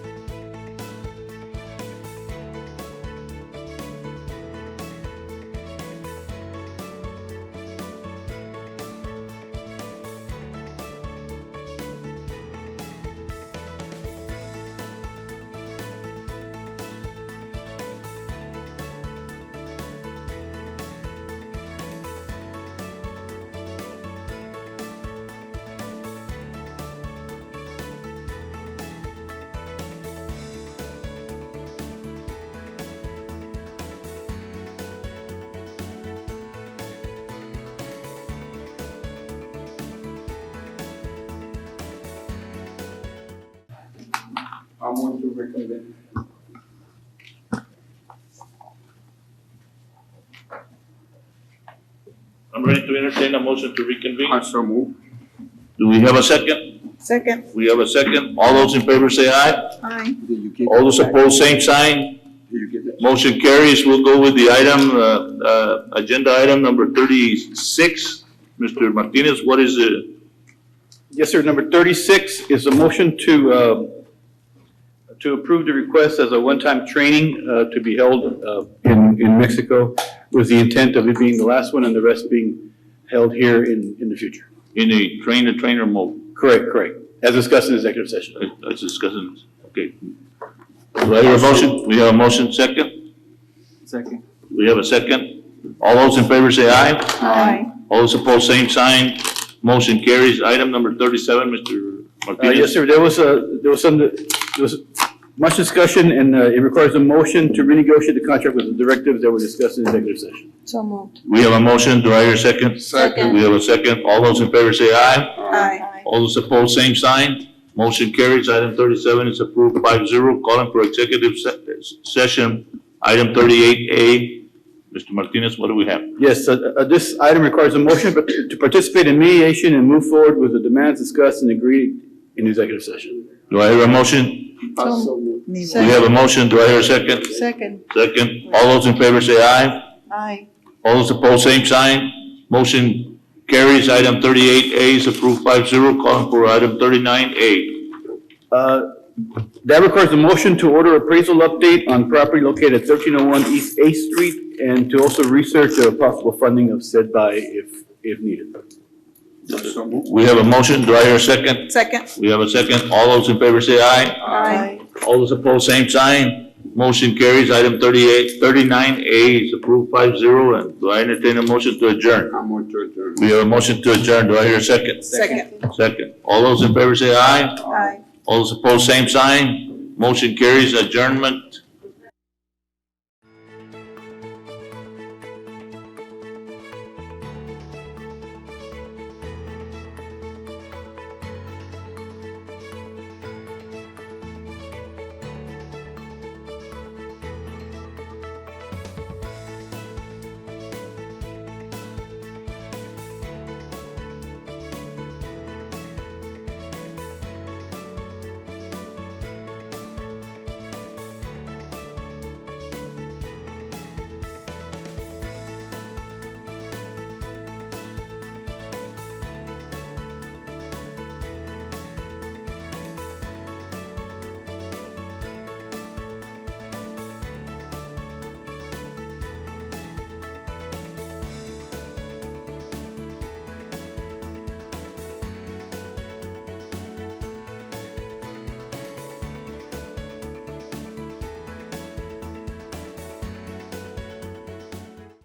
want to recommend. I'm ready to entertain a motion to reconvene. so move. Do we have a second? Second, We have a second. All those in favor say aye. aye. Did you get? All those opposed, same sign. Did you get that? Motion carries. We'll go with the item, uh, uh, agenda item number thirty-six. Mr. Martinez, what is it? Yes, sir. Number 36 is a motion to, uh, to approve the request as a one-time training uh, to be held uh, in, in Mexico with the intent of it being the last one and the rest being held here in, in the future. In a train-the-trainer mode? Correct, correct. As discussed in executive session. That's discussing, okay. Do I hear a motion? We have a motion second. Second. We have a second. All those in favor say aye. Aye. All those opposed, same sign. Motion carries. Item number thirty-seven, Mr. Uh, Yes, Martinez. sir. There was a, there was some, there was much discussion and uh, it requires a motion to renegotiate the contract with the directives that were discussed in executive session. So moved. We have a motion. Do I hear a second? Second. We have a second. All those in favor say aye. Aye. All those opposed, same sign. Motion carries. Item thirty-seven is approved 5-0. Calling for executive se- session. Item thirty-eight A. Mr. Martinez, what do we have? Yes, uh, uh, this item requires a motion but to participate in mediation and move forward with the demands discussed and agreed in executive session. Do I hear a motion? so move. Me We have a motion. Do I hear a second? Second, Second. All those in favor say aye. aye. All those opposed, same sign. Motion carries. Item thirty-eight A is approved 5-0. Calling for item thirty-nine A. Uh, That requires a motion to order appraisal update on property located at 1301 East Eighth Street and to also research a possible funding of said by if, if needed. So move. We have a motion. Do I hear a second? Second, We have a second. All those in favor say aye. aye. All those opposed, same sign. Motion carries. Item thirty-eight, thirty-nine A is approved 5-0. And do I entertain a motion to adjourn? I want to adjourn. We have a motion to adjourn. Do I hear a second? Second, Second. All those in favor say aye. aye. All those opposed, same sign. Motion carries adjournment